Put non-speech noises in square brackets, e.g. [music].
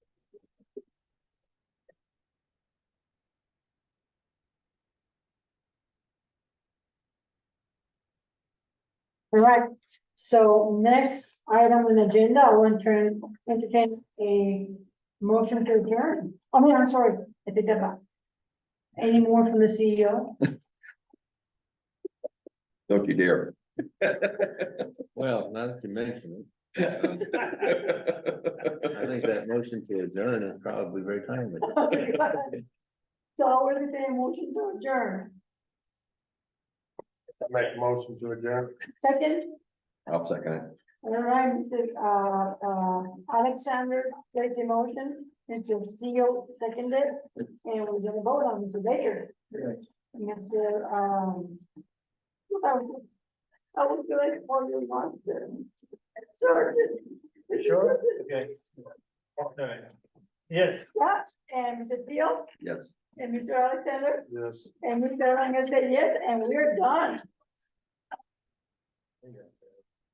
All right, so next item on the agenda, I want to turn- entertain a motion to adjourn. I mean, I'm sorry, I did that back. Any more from the E CEO? Don't you dare. [laughs] Well, now that you mention it, I think that motion to adjourn is probably very timely. So I want to a motion to adjourn. Make a motion to adjourn. Second, I'll second it. all right, Mr. uh, uh, Alexander, made the motion, Mr. CEO seconded, and we're gonna vote on Mr. Baker. Mr. Um. I was- I was doing all your monster. Sorry. Sure, okay. Okay. Yes. Yeah, and Mr. Theo, Yes. and Mr. Alexander, Yes. and Mr. Ranga said yes, and we're done. Yeah.